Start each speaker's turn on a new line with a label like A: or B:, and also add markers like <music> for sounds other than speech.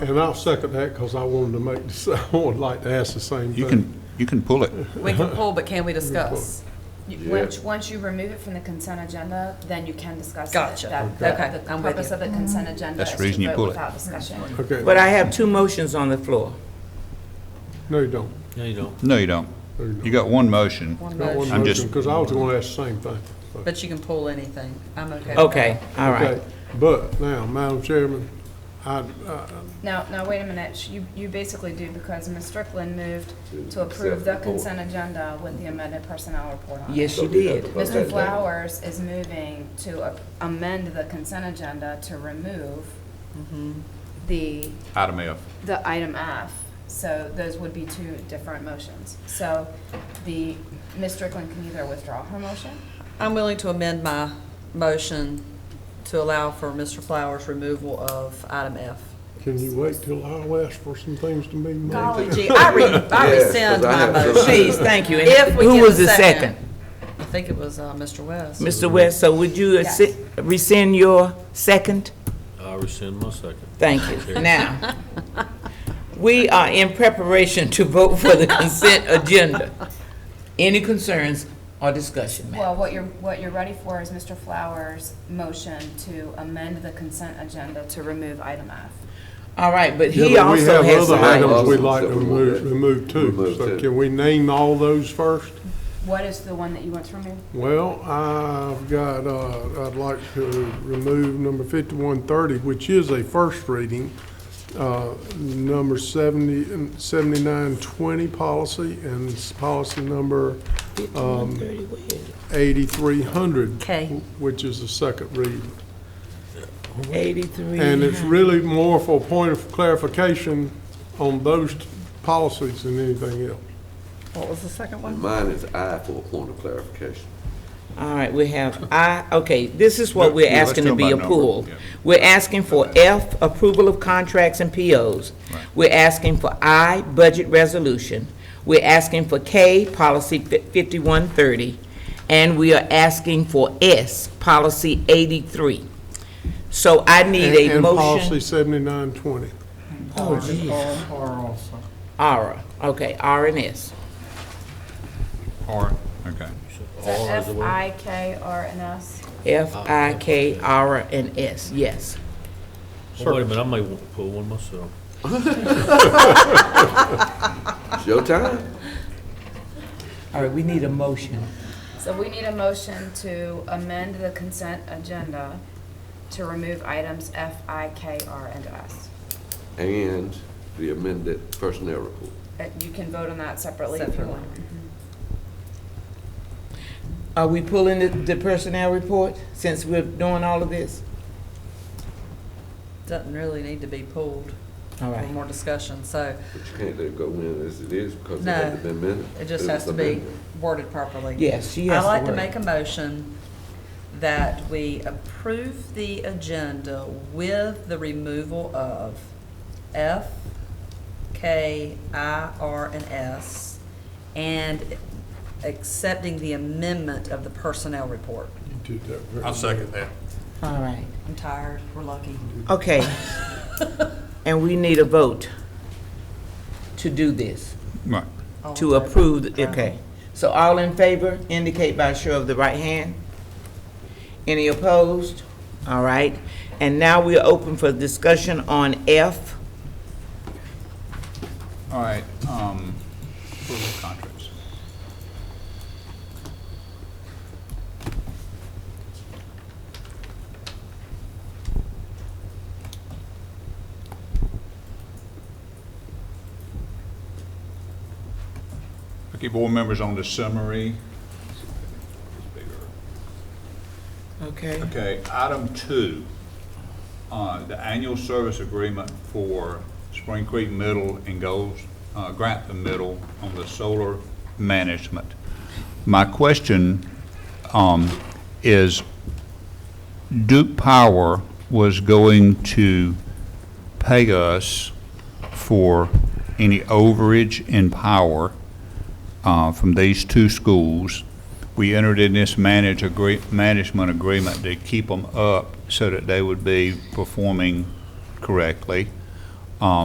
A: And I'll second that because I wanted to make, this- <laughs> I would like to ask the same thing.
B: You can, you can pull it.
C: We <laughs> can pull, but can we discuss?
D: You- Once, once you remove it from the consent agenda, then you can discuss it.
C: Gotcha.
D: That- that-
C: Okay. Okay,
D: The
C: I'm with
D: purpose
C: you.
D: of the consent agenda
B: That's
D: is
B: the reason you
D: to vote
B: pull it.
D: without discussion.
E: But
A: Okay,
E: I have two motions on the floor.
A: no, you don't.
F: No, you don't.
B: No, you don't.
A: No, you don't.
B: You got one motion.
C: One
A: Not one
C: motion,
B: I'm just-
A: motion, because I was going to ask the same thing. so.
C: but you can pull anything. I'm okay. with that.
E: Okay, all right.
A: Okay, But now, Madam Chairman, I, uh, I-
D: Now, now, wait a minute, Sh- you, you basically do, because Ms. Strickland moved to approve the consent agenda with the amended personnel report on it.
E: Yes, you did.
D: Mr. Flowers is moving to a- amend the consent agenda to remove
C: Mm-hmm.
D: the,
B: Item F.
D: the item F. So those would be two different motions. So the, Ms. Strickland can either withdraw her motion
C: I'm willing to amend my motion to allow for Mr. Flowers' removal of item F.
A: can you wait till I'll ask for some things to be made?
C: Golly gee, I <laughs> re, I rescind my motion.
E: Please, thank you.
C: If
E: And
C: we
E: Who
C: get
E: was
C: a
E: the
C: second.
E: second?
C: I think it was, uh, Mr. West.
E: Mr. West, so would you
D: Yes.
E: assi- rescind your second?
F: I rescind my second.
E: Thank you. Now, we are in preparation to vote for the consent agenda. Any concerns or discussion, ma'am?
D: Well, what you're, what you're ready for is Mr. Flowers' motion to amend the consent agenda to remove item F.
E: All right, but
A: Yeah,
E: he
A: but we
E: also
A: have
E: has
A: other
E: some
A: items
E: items.
A: we'd like to
G: Items that we
A: remove,
G: want to
A: remove too.
G: remove
A: So
G: too.
A: can we name all those first?
D: What is the one that you want to remove?
A: Well, I've got, uh, I'd like to remove number fifty-one thirty, which is a first reading. Uh, number seventy, seventy-nine twenty policy and s- policy number
E: Um,
A: Um, eighty-three hundred.
C: Okay.
A: Which is the second reading.
E: Eighty-three.
A: And it's really more for a point of clarification on those t- policies than anything else.
C: What was the second one?
G: Mine is I for a point of clarification.
E: All right, we have I, okay, this is what we're
B: Yeah, let's
E: asking to
B: go
E: be
B: by
E: a
B: number,
E: pool.
B: yeah.
E: We're asking for F, approval of contracts and POs. We're asking for I, budget resolution. We're asking for K, policy fi- 5130. And we are asking for S, policy 83. So I need
A: And-
E: a
A: And policy
E: motion.
A: seventy-nine twenty.
E: Oh, geez. Ara, okay, R and S.
B: Or, okay.
F: R is
D: F,
F: the word.
D: I, K, R, and S?
E: F, I, K, R, and S, yes.
F: Oh, Wait a minute, I might want to pull one myself.
G: It's your time.
E: All right, we need a motion.
D: So we need a motion to amend the consent agenda to remove items F, I, K, R, and S.
G: And the amended personnel report.
D: Uh, You can vote on that separately if you want.
E: Are we pulling the, the personnel report since we're doing all of this?
C: Doesn't really need to be pulled for
E: All right.
C: more discussion, so
G: But you can't let it go in as it is because it
C: No,
G: had to be amended.
C: it just
G: was
C: has to be
G: amended.
C: worded properly.
E: Yes, she has
C: I'd like
E: the
C: to
E: word.
C: make a motion that we approve the agenda with the removal of F, K, I, R, and S, and accepting the amendment of the personnel report.
A: You did that very
B: second that.
E: All right,
C: I'm tired, we're lucky.
E: <laughs> okay. And we need a vote to do this,
B: Right.
C: All in
E: to
C: favor?
E: approve, the- Oh, okay. So all in favor indicate by a show of the right hand. Any opposed? All right, and now we are open for discussion on F.
B: All right, um, approval of contracts. Okay, board members on the summary. It's bigger.
E: Okay.
B: Okay, item two, uh, the annual service agreement for Spring Creek Middle and Goals, uh, Grantham Middle on the solar management. My question, um, is Duke Power was going to pay us for any overage in power uh, from these two schools. We entered in this manage agree, management agreement to keep them up so that they would be performing correctly.